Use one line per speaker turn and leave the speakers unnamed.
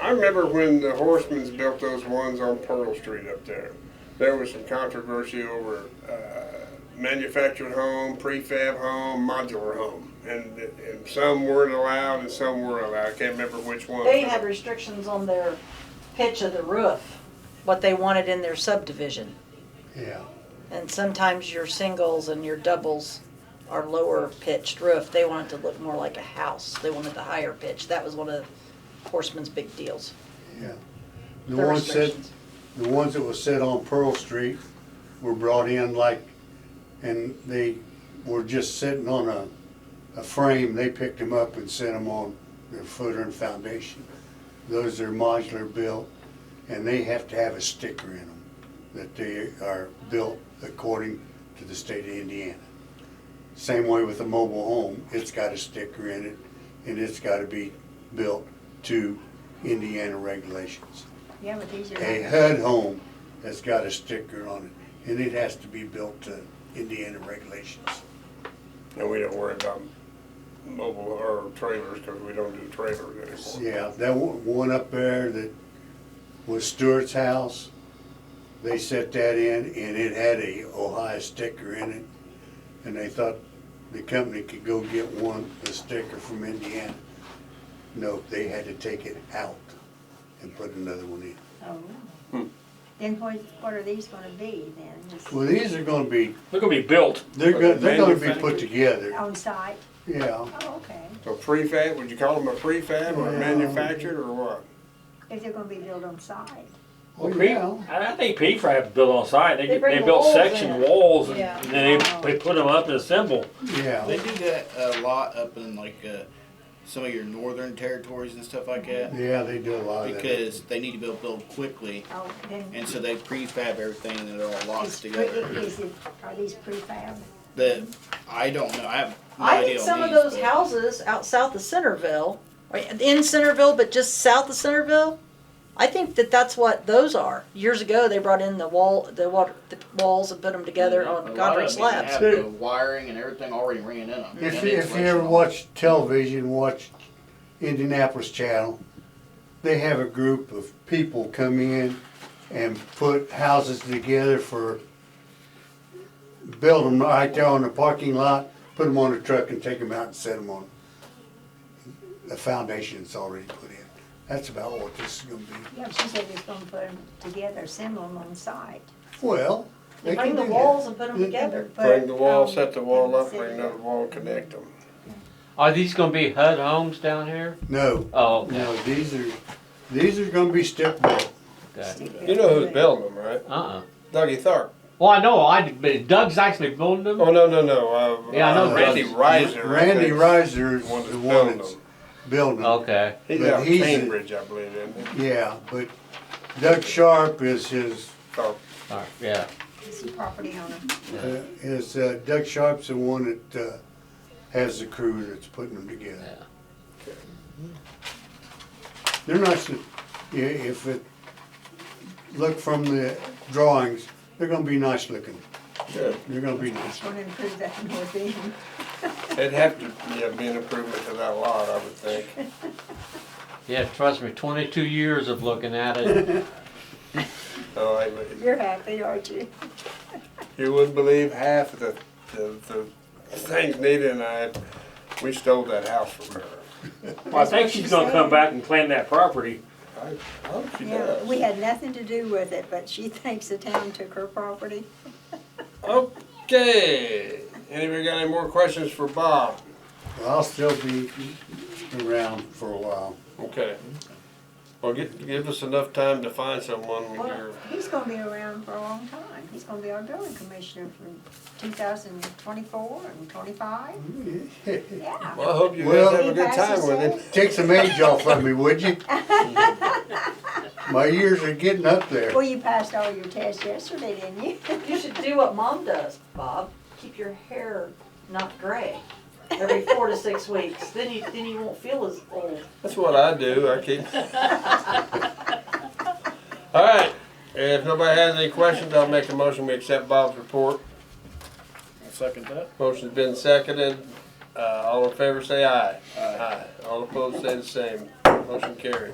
I remember when the Horsemen's built those ones on Pearl Street up there. There was some controversy over uh, manufactured home, prefab home, modular home, and, and some weren't allowed and some were allowed. I can't remember which one.
They had restrictions on their pitch of the roof, what they wanted in their subdivision.
Yeah.
And sometimes your singles and your doubles are lower pitched roof. They wanted to look more like a house. They wanted the higher pitch. That was one of Horseman's big deals.
Yeah. The
Their
ones that,
restrictions.
the ones that was set on Pearl Street were brought in like, and they were just sitting on a, a frame, they picked them up and set them on their footer and foundation. Those are modular built, and they have to have a sticker in them that they are built according to the state of Indiana. Same way with a mobile home, it's got a sticker in it, and it's gotta be built to Indiana regulations.
Yeah, but these
A
are,
HUD home has got a sticker on it, and it has to be built to Indiana regulations.
And we don't worry about mobile or trailers because we don't do trailers anymore.
Yeah, that one one up there that was Stewart's house, they set that in, and it had a Ohio sticker in it, and they thought the company could go get one, a sticker from Indiana. No, they had to take it out and put another one in.
oh, really? Then what, what are these gonna be then? Just
Well, these are gonna be,
They're gonna be built.
they're gonna, they're gonna be
Manufactured.
put together,
On site?
yeah.
Oh, okay.
So prefab, would you call them a prefab or
Yeah.
manufactured or what?
If they're gonna be built on site.
Oh,
Pre-
yeah.
I I think prefab is built on site. They,
They bring
they built
walls
section
in.
walls and
Yeah.
and then they, they put them up and assemble.
They
Yeah,
do that a lot up in like uh, some of your northern territories and stuff like that
yeah, they do a lot of that.
because they need to be able to build quickly,
Oh, then
and so they prefab everything and they're all locked
is, pre-
together.
is it, are these prefab?
The I don't know. I have no
I
idea.
think
on
some of
these,
those
but
houses out south of Centerville, or in Centerville, but just south of Centerville, I think that that's what those are. Years ago, they brought in the wall, the water, the walls and put them together
Mm-hmm. a
on
lot
concrete
of them even
slabs.
Have the wiring and everything already ran in them.
If, you- if you ever watch television, watch Indianapolis Channel, they have a group of people come in and put houses together for, build them right there on the parking lot, put them on a truck and take them out and set them on the foundation that's already put in. That's about what this is gonna be.
Yeah, she said it's gonna put them together, assemble them on site.
Well, they can
Bring
do
the
that.
walls and put them
Yeah.
together.
Bring the wall,
But, um,
set the wall up,
set
bring
it
another wall, connect them.
Are these gonna be HUD homes down here?
No,
Oh, okay.
no, these are, these are gonna be step built.
okay.
stick it
You know
up.
who's building them, right?
Uh-uh.
Dougie Tharp.
Well, I know, I, but Doug's actually building them.
Oh, no, no, no. Uh,
Yeah, I know
uh, Randy
Doug's.
Riser.
Randy Riser is
The one that's
the one
building
that's
them.
building them.
Okay.
He's
But
out of
he's a-
Cambridge, I believe, isn't he?
Yeah, but Doug Sharp is his,
Tharp.
All right. Yeah.
It's a property owner.
uh, is, uh, Doug Sharp's the one that, uh, has the crew that's putting them together. They're not, s- i- if it, look from the drawings, they're gonna be nice looking.
Good.
They're gonna be nice.
Just wanna improve that north end.
It'd have to yeah, be an improvement to that lot, I would think.
Yeah. Trust me. Twenty-two years of looking at it.
So I would-
You're happy, aren't you?
You wouldn't believe half of the, the, the things Nita and I, we stole that house from her.
Well, I think she's gonna come back and claim that property.
I, oh, she
Yeah,
does.
we had nothing to do with it, but she thinks the town took her property.
Okay, anybody got any more questions for Bob?
Well, I'll still be around for a while.
Okay. Well, give, give us enough time to find someone when
Well,
you're,
he's gonna be around for a long time. He's gonna be our building commissioner from two thousand twenty-four and twenty-five, yeah.
well, I hope you guys
Well-
have a good time with it.
Take some age off of me, would you? My years are getting up there.
Well, you passed all your tests yesterday, didn't you?
You should do what mom does, Bob. Keep your hair not gray every four to six weeks. Then you then you won't feel as old.
That's what I do, I keep. All right, if nobody has any questions, I'll make a motion, we accept Bob's report.
I'll second that.
Motion's been seconded. Uh, all in favor say aye. Aye. All opposed say the same. Motion carried.